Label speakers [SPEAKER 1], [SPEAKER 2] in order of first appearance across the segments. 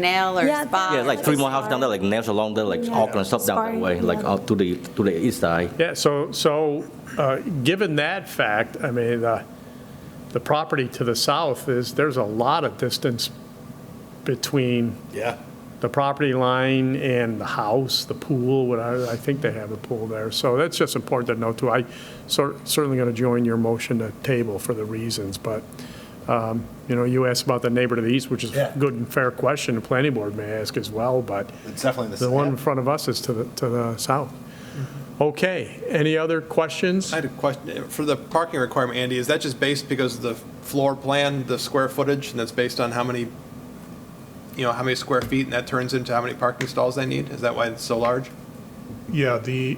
[SPEAKER 1] Canal or
[SPEAKER 2] Yeah,
[SPEAKER 1] Spa.
[SPEAKER 2] Yeah,
[SPEAKER 1] or
[SPEAKER 2] like
[SPEAKER 1] something.
[SPEAKER 2] three more houses down there, like nails along there, like all kind of stuff down that Sparring,
[SPEAKER 1] way,
[SPEAKER 2] yeah.
[SPEAKER 1] like
[SPEAKER 2] out
[SPEAKER 3] to the, to the east side.
[SPEAKER 4] Yeah, so, so, uh, given that fact, I mean, the, the property to the south is, there's a lot of distance between
[SPEAKER 5] Yeah.
[SPEAKER 4] the property line and the house, the pool, whatever, I think they have a pool there. So that's just important to note too. I cer- certainly going to join your motion to table for the reasons, but, um, you know, you asked about the neighbor to the east, which is
[SPEAKER 5] Yeah.
[SPEAKER 4] a good and fair question, the planning board may ask as well, but
[SPEAKER 5] It's definitely the
[SPEAKER 4] the one in
[SPEAKER 5] same.
[SPEAKER 4] front of us is to the, to the south. Okay, any other questions?
[SPEAKER 5] I had a question, eh, for the parking requirement, Andy, is that just based because of the floor plan, the square footage, and that's based on how many, you know, how many square feet, and that turns into how many parking stalls they need? Is that why it's so large?
[SPEAKER 6] Yeah, the,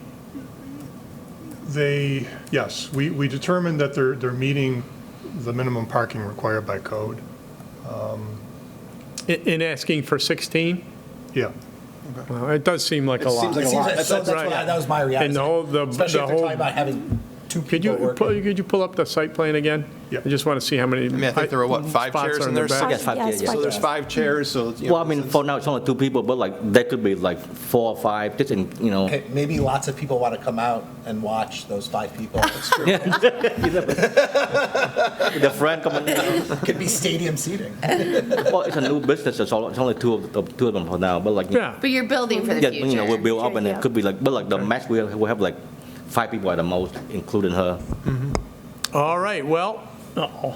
[SPEAKER 6] they, yes, we, we determined that they're, they're meeting the minimum parking required by code.
[SPEAKER 4] In- In asking for 16?
[SPEAKER 6] Yeah,
[SPEAKER 4] Well, it does seem like a lot.
[SPEAKER 5] seems like a lot.
[SPEAKER 7] That's, that's
[SPEAKER 4] right.
[SPEAKER 7] what I- that was my reaction.
[SPEAKER 4] And the whole- the- the
[SPEAKER 7] Especially if they're
[SPEAKER 4] whole-
[SPEAKER 7] talking about having two
[SPEAKER 4] Could
[SPEAKER 7] people
[SPEAKER 4] you,
[SPEAKER 7] working.
[SPEAKER 4] pull- could you pull up the site plan again?
[SPEAKER 6] Yeah.
[SPEAKER 4] I just want to see how many. I
[SPEAKER 5] mean, I think there were, what, five chairs in there?
[SPEAKER 4] back.
[SPEAKER 3] Yes, five
[SPEAKER 2] Yeah,
[SPEAKER 3] days,
[SPEAKER 2] it's
[SPEAKER 3] yeah.
[SPEAKER 5] So there's five chairs, so, you know.
[SPEAKER 3] Well, I mean,
[SPEAKER 5] since-
[SPEAKER 3] for now, it's only two people, but like, there could be like four or five, just in, you know.
[SPEAKER 7] Okay, Maybe lots of people want to come out and watch those five people.
[SPEAKER 3] The friend coming,
[SPEAKER 7] Could be stadium seating.
[SPEAKER 3] well, it's a new business, it's all- it's only two of, of- two of them for now, but like.
[SPEAKER 4] Yeah,
[SPEAKER 1] But you're building for the
[SPEAKER 3] Yeah,
[SPEAKER 1] future.
[SPEAKER 3] you know, we'll build up and
[SPEAKER 2] Yeah.
[SPEAKER 3] it could be like, but like the max, we'll, we'll have like five people at the most, including her.
[SPEAKER 4] all right, well, uh-oh.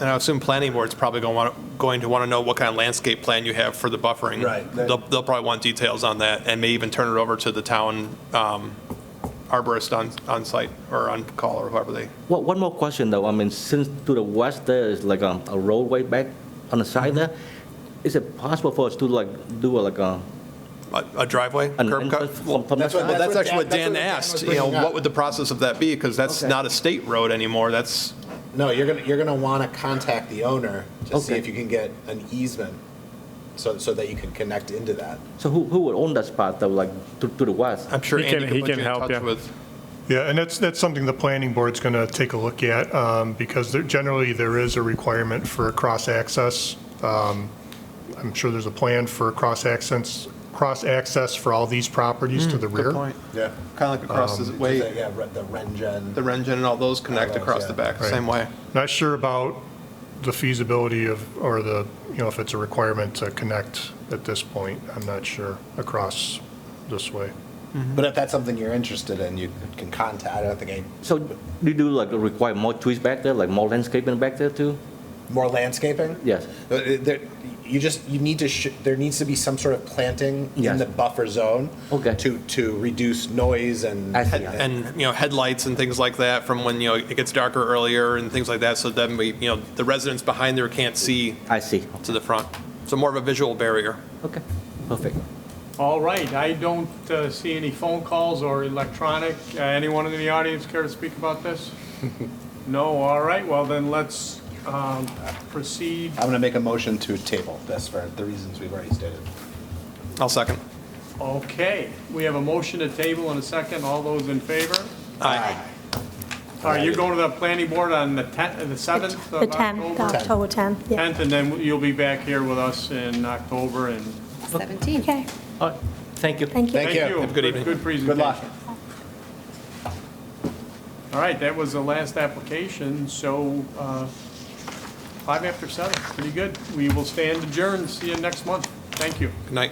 [SPEAKER 5] And I assume planning board's probably going to want, going to want to know what kind of landscape plan you have for the buffering.
[SPEAKER 7] Right.
[SPEAKER 5] They'll, they'll probably want details on that, and may even turn it over to the town um, arborist on, on site, or on call, or whoever they
[SPEAKER 3] Well, one more question though, I mean, since to the west there is like a a roadway back on the
[SPEAKER 7] Mm-hmm.
[SPEAKER 3] side there, is it possible for us to like do a, like a,
[SPEAKER 5] a a driveway,
[SPEAKER 3] an
[SPEAKER 5] curb cut?
[SPEAKER 3] entrance from, from the
[SPEAKER 7] that's what-
[SPEAKER 5] Well,
[SPEAKER 3] side?
[SPEAKER 5] that's actually what
[SPEAKER 7] Dan-
[SPEAKER 5] Dan
[SPEAKER 7] that's what Dan was
[SPEAKER 5] asked, you know,
[SPEAKER 7] bringing up.
[SPEAKER 5] what would the process of that be? Because that's
[SPEAKER 3] Okay.
[SPEAKER 5] not a state road anymore, that's,
[SPEAKER 7] No, you're gonna, you're gonna want to contact the owner to see
[SPEAKER 3] Okay.
[SPEAKER 7] if you can get an easement, so, so that you can connect into that.
[SPEAKER 3] So who, who would own that spot though, like to, to the west?
[SPEAKER 5] I'm sure
[SPEAKER 4] He
[SPEAKER 5] Andy
[SPEAKER 4] can- he
[SPEAKER 5] can put
[SPEAKER 4] can
[SPEAKER 5] you in
[SPEAKER 4] help
[SPEAKER 5] touch
[SPEAKER 4] you.
[SPEAKER 5] with.
[SPEAKER 6] yeah, and that's, that's something the planning board's going to take a look at, um, because there, generally, there is a requirement for a cross-access. Um, I'm sure there's a plan for a cross-access, cross-access for all these properties to the
[SPEAKER 5] Hmm,
[SPEAKER 6] rear. Um,
[SPEAKER 7] Yeah.
[SPEAKER 5] Kind of like across the way,
[SPEAKER 7] Yeah, re- the Rengen.
[SPEAKER 5] the Rengen and all those connect
[SPEAKER 7] those,
[SPEAKER 5] across
[SPEAKER 7] yeah.
[SPEAKER 5] the back,
[SPEAKER 6] Right.
[SPEAKER 5] same way.
[SPEAKER 6] Not sure about the feasibility of, or the, you know, if it's a requirement to connect at this point. I'm not sure across this way.
[SPEAKER 7] But if that's something you're interested in, you can contact, I don't think, I-
[SPEAKER 3] So do you do like require more trees back there, like more landscaping back there too?
[SPEAKER 7] more landscaping?
[SPEAKER 3] Yes.
[SPEAKER 7] Uh, there- You just, you need to, sh- there needs to be some sort of planting in
[SPEAKER 3] Yes.
[SPEAKER 7] the buffer zone.
[SPEAKER 3] Okay.
[SPEAKER 7] To, to reduce noise and.
[SPEAKER 3] I see.
[SPEAKER 5] Head- And, you know, headlights and things like that from when, you know, it gets darker earlier and things like that, so then we, you know, the residents behind there can't see
[SPEAKER 3] I see,
[SPEAKER 5] to the front. So more of a visual barrier.
[SPEAKER 3] okay, perfect.
[SPEAKER 4] All right, I don't uh, see any phone calls or electronic. Uh, Anyone in the audience care to speak about this? No, all right, well then let's um, proceed.
[SPEAKER 7] I'm gonna make a motion to table this for the reasons we've already stated.
[SPEAKER 5] I'll second.
[SPEAKER 4] Okay, we have a motion to table and a second, all those in favor?
[SPEAKER 5] Aye.
[SPEAKER 4] All right, you're going to the planning board on the 10th, the 7th of
[SPEAKER 2] The 10th,
[SPEAKER 4] October?
[SPEAKER 2] October 10th, yeah.
[SPEAKER 4] 10th, and then you'll be back here with us in October, and
[SPEAKER 1] 17.
[SPEAKER 2] Okay,
[SPEAKER 3] All right, thank you.
[SPEAKER 2] thank you.
[SPEAKER 7] Thank
[SPEAKER 4] thank
[SPEAKER 7] you.
[SPEAKER 4] you.
[SPEAKER 5] Have a good evening.
[SPEAKER 4] Good
[SPEAKER 7] Good
[SPEAKER 4] presentation.
[SPEAKER 7] luck.
[SPEAKER 4] All right, that was the last application, so uh, five after seven, pretty good. We will stand adjourned, see you next month. Thank you.
[SPEAKER 5] Good night.